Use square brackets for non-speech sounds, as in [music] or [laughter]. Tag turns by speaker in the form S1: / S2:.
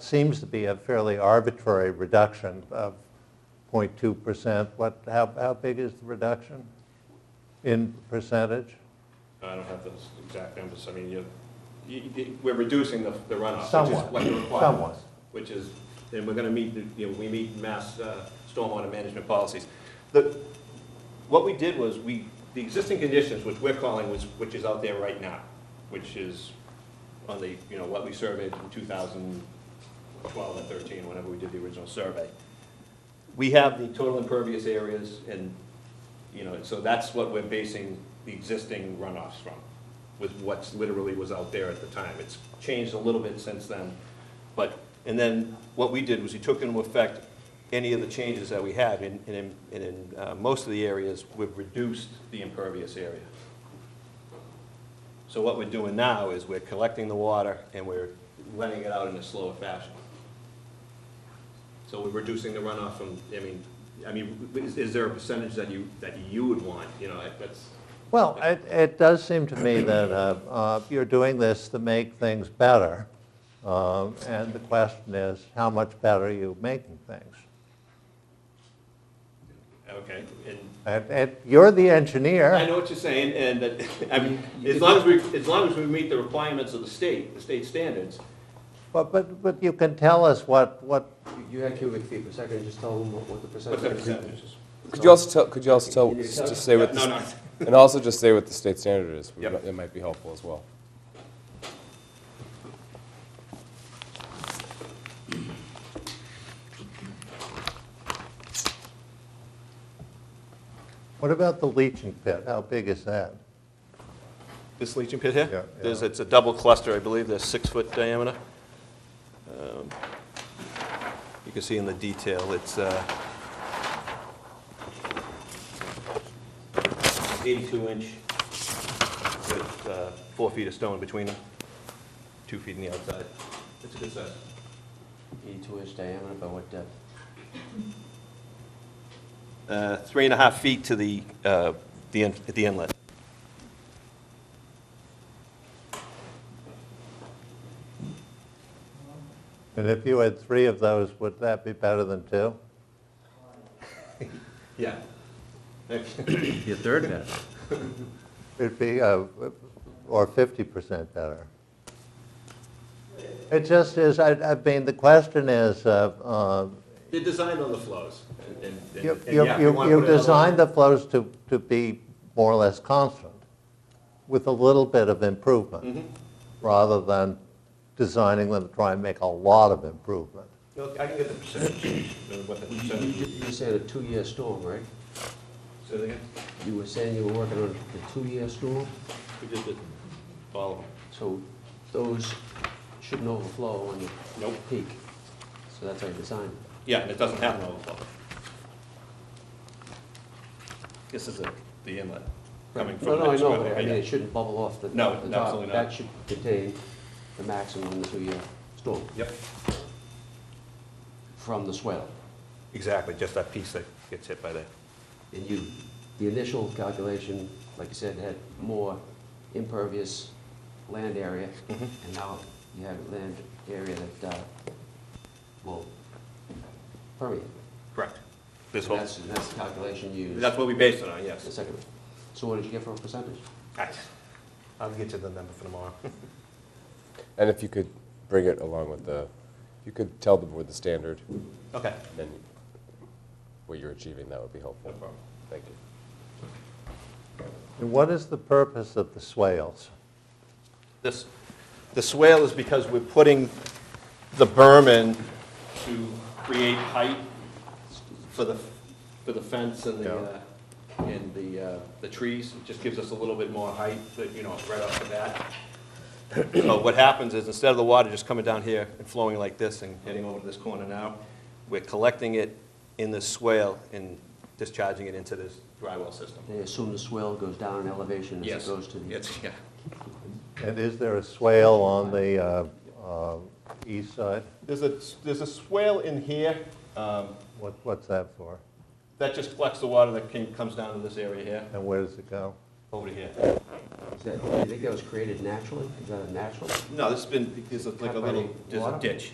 S1: Seems to be a fairly arbitrary reduction of 0.2%. What, how, how big is the reduction in percentage?
S2: I don't have those exact numbers, I mean, you, you- you- we're reducing the the runoff, which is
S1: Somewhat,
S2: what you require.
S1: somewhat.
S2: Which is, and we're gonna meet, the- you know, we meet mass uh, stormwater management policies. The, what we did was, we, the existing conditions, which we're calling, was, which is out there right now, which is on the, you know, what we surveyed in 2012 and 13, whenever we did the original survey. We have the total impervious areas and, you know, so that's what we're basing the existing runoffs from, with what's literally was out there at the time. It's changed a little bit since then, but, and then what we did was we took into effect any of the changes that we had, and and in, and in uh, most of the areas, we've reduced the impervious area. So what we're doing now is we're collecting the water and we're letting it out in a slower fashion. So we're reducing the runoff from, I mean, I mean, is, is there a percentage that you, that you would want, you know, that's,
S1: Well, it, it does seem to me that uh, uh, you're doing this to make things better. Um, And the question is, how much better are you making things?
S2: okay, and
S1: And, and you're the
S2: I
S1: engineer.
S2: know what you're saying, and that, [laughs] I mean, as long as we, as long as we meet the requirements of the state, the state standards,
S1: But, but, but you can tell us what, what,
S3: You had cubic feet per second, just tell them what what the
S2: what's
S3: percentage
S2: the
S3: is.
S2: percentages?
S4: Could you also tell, could you also tell,
S3: Can you
S4: s-
S3: tell?
S4: just say what,
S2: No,
S4: the-
S2: no,
S4: and also just say what the state standard is? We
S2: Yep.
S4: might- That might be helpful as well.
S1: what about the leaching pit? How big is that?
S2: This leaching pit here?
S1: Yeah,
S2: There's,
S1: yeah.
S2: it's a double cluster, I believe, there's six-foot diameter. Um, You can see in the detail, it's, uh... Eighty-two inch with, uh, four feet of stone between them, two feet on the outside. It's a good size.
S3: Eighty-two inch diameter, by what depth?
S2: Uh, three and a half feet to the, uh, the, in- at the inlet.
S1: And if you had three of those, would that be better than two?
S2: Yeah.
S3: Your third depth.
S1: It'd be, uh, or 50% better. It just is, I, I mean, the question is, uh, uh,
S2: They're designed on the flows, and- and, and,
S1: you,
S2: and
S1: you
S2: yeah, if you
S1: you
S2: wanna
S1: you
S2: put it on-
S1: designed the flows to, to be more or less constant with a little bit of
S2: Mm-hmm.
S1: improvement, rather than designing them to try and make a lot of improvement.
S2: No, I can get the percentage, uh, what the
S3: You,
S2: percentage
S3: you
S2: is.
S3: you said a two-year storm, right?
S2: So they,
S3: You were saying you were working on the two-year storm,
S2: we just did follow.
S3: so those shouldn't overflow on the
S2: Nope.
S3: peak. So that's how you design it.
S2: Yeah, and it doesn't have an overflow. This is a- the inlet coming from
S3: No,
S2: the
S3: no, I
S2: next
S3: know,
S2: road.
S3: but I mean, it shouldn't bubble off the the
S2: No,
S3: top.
S2: absolutely not.
S3: That should contain the maximum of the two-year storm
S2: Yep,
S3: from the swell.
S2: exactly, just that piece that gets hit by the,
S3: And you, the initial calculation, like you said, had more impervious land area,
S2: Mm-hmm.
S3: and now you have land area that uh, will permeate.
S2: correct. This
S3: And
S2: whole,
S3: That's, that's the calculation you used.
S2: that's what we based it on,
S3: The
S2: yes.
S3: second one. So what did you get for a percentage?
S2: I'll get you the number for tomorrow. [laughs]
S4: And if you could bring it along with the, if you could tell the board the standard,
S2: Okay.
S4: then what you're achieving, that would be helpful.
S2: No problem.
S4: Thank you.
S1: And what is the purpose of the swales?
S2: This, the swale is because we're putting the berm in to create height for the, for the fence and the, uh, and the, uh, the trees. It just gives us a little bit more height, that, you know, right off the bat. So what happens is instead of the water just coming down here and flowing like this and heading over to this corner now, we're collecting it in this swale and discharging it into this dry well system.
S3: They assume the swell goes down in elevation as it
S2: Yes,
S3: goes to the.
S2: it's, yeah.
S1: And is there a swale on the uh, uh, east side?
S2: There's a, there's a swale in here, um,
S1: What, what's that for?
S2: That just collects the water that came, comes down to this area here,
S1: And where does it go?
S2: over to here.
S3: Is that, do you think that was created naturally? Is that a natural?
S2: No, this has been, there's like a
S3: Cut by
S2: little,
S3: the
S2: there's a
S3: water?
S2: ditch.